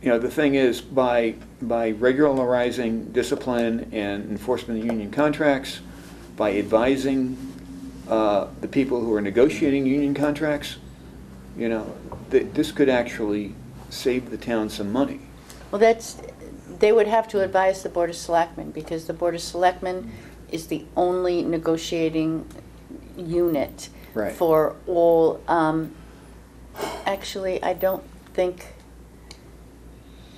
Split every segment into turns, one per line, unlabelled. you know, the thing is, by, by regularizing discipline and enforcement of union contracts, by advising uh, the people who are negotiating union contracts, you know, th- this could actually save the town some money.
Well, that's, they would have to advise the Board of Selectmen, because the Board of Selectmen is the only negotiating unit
Right.
for all, um, actually, I don't think,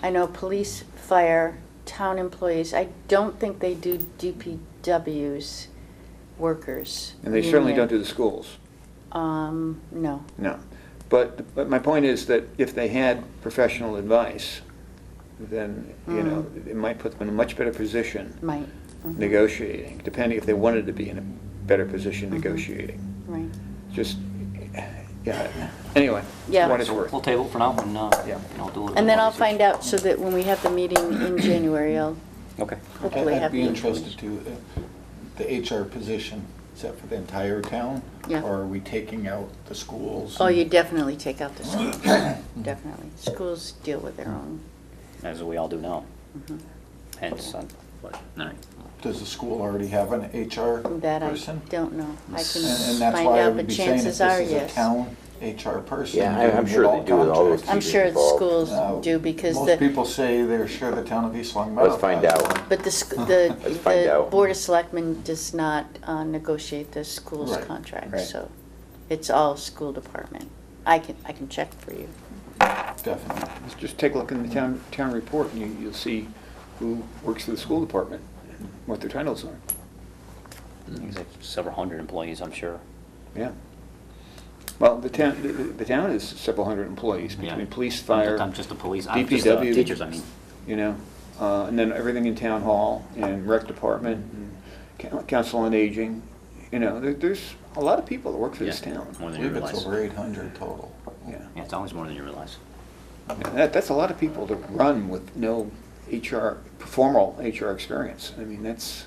I know police, fire, town employees, I don't think they do DPW's workers.
And they certainly
union.
don't do the schools,
Um, no.
no. But, but my point is that if they had professional advice, then, you know, it might put them in a much better position
Might. Mhm.
negotiating, depending if they wanted to be in a better position negotiating.
Right.
Just, yeah, anyway,
Yeah.
for what it's
So
worth.
We'll table it for now and, uh,
Yeah.
and I'll do it.
And then I'll find out, so that when we have the meeting in January, I'll
Okay.
hopefully have the
I'd be interested
information.
to, uh, the HR position, is that for the entire town?
Yeah.
Or are we taking out the schools?
Oh, you definitely take out the schools, definitely. Schools deal with their own. Mm-hmm.
As we all do now. Hence, uh, I'm,
Does the school already have an HR
That I
person?
don't know. I can
And and that's
find
why I
out,
would
but
be saying if
chances
this
are,
is a
yes.
town HR person.
Yeah, I- I'm
doing
sure they do with all those
contracts.
I'm
Teachers
sure the
involved.
schools
Now,
do because
Most
the,
people say they're sure the town of East Long Meadow.
Let's find
has
out.
one.
but the, sc- the,
Let's find
the
out.
Board of Selectmen does not uh, negotiate the school's
Right,
contract,
right.
so it's all school department. I can, I can check for you.
Definitely.
Let's Just take a look in the town, town report, and you, you'll see who works for the school department, what their titles are. Mm-hmm.
there's like several hundred employees, I'm sure.
Yeah. Well, the town, the- the town is several hundred employees,
Yeah.
between police,
I'm
fire.
just- I'm just the police, I'm just the
DPW,
teachers, I mean.
You know, uh, and then everything in town hall, and rec department, and coun- council on aging, you know, there, there's a lot of people that work for this
Yeah,
town.
More
I
than you
believe it's
realize.
over 800 total.
Yeah.
Yeah, it's always more than you realize.
Yeah, That, that's a lot of people to run with no HR, formal HR experience. I mean, that's,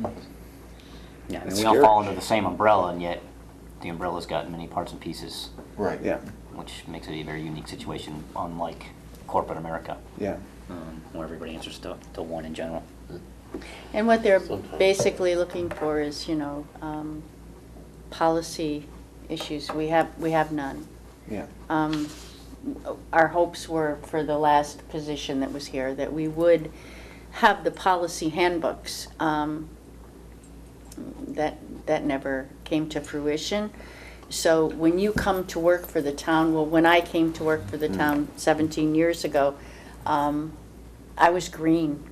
Yeah, I mean,
That's
we all
scary.
fall under the same umbrella and yet the umbrella's got many parts and pieces,
Right.
yeah,
which makes it a very unique situation, unlike corporate America,
yeah.
um, where everybody answers to, to one in general.
And what they're basically looking for is, you know, um, policy issues. We have, we have none.
Yeah,
Um, Our hopes were for the last position that was here, that we would have the policy handbooks. Um, That, that never came to fruition. So when you come to work for the town, well, when I came to work for the town 17 years ago, um, I was green.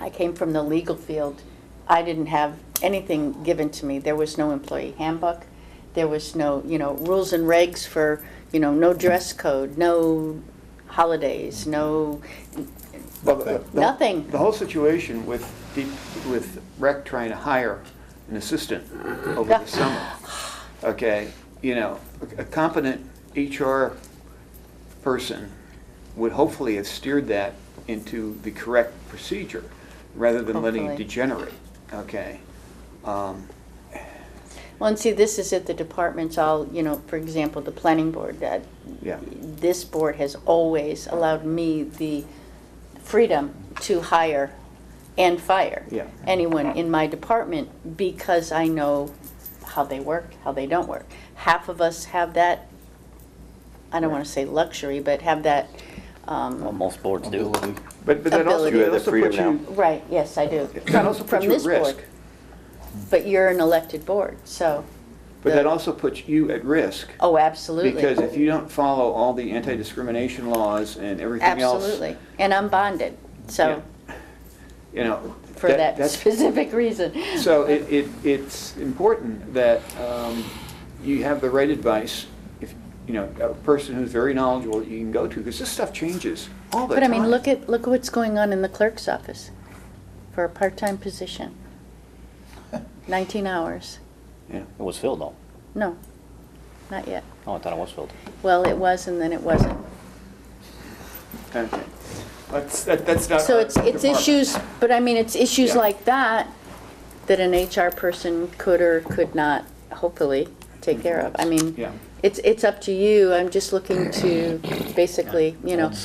I came from the legal field. I didn't have anything given to me. There was no employee handbook. There was no, you know, rules and regs for, you know, no dress code, no holidays, no,
Well, the- the-
Nothing.
The whole situation with, the- with rec trying to hire an assistant over the summer, okay, you know, a competent HR person would hopefully have steered that into the correct procedure, rather than letting it
Hopefully.
degenerate, okay? Um,
well, and see, this is at the departments all, you know, for example, the planning board, that
Yeah.
this board has always allowed me the freedom to hire and fire
Yeah.
anyone in my department because I know how they work, how they don't work. Half of us have that, I don't want to say luxury, but have that, um,
Well, most boards do.
Ability.
But, but that also,
Ability. You
it
have the
also
freedom
puts
now.
you,
right, yes, I do.
that also
from
puts you at
this
risk.
board. But you're an elected board, so,
But
the-
that also puts you at risk.
oh, absolutely.
Because if you don't follow all the anti-discrimination laws and everything else.
Absolutely, and I'm bonded, so,
You know.
for that
that's-
specific reason.
So it, it, it's important that um, you have the right advice. If, you know, a person who's very knowledgeable that you can go to, because this stuff changes all the
But I
time.
mean, look at, look at what's going on in the clerk's office for a part-time position. 19 hours.
Yeah,
It was filled though.
No, not yet.
Oh, I thought it was filled.
Well, it was and then it wasn't.
okay. That's, that- that's not.
So
our
it's, it's
department.
issues, but I mean, it's issues
Yeah.
like that that an HR person could or could not, hopefully, take care of. I mean,
Yeah.
It's, it's up to you. I'm just looking to basically, you know,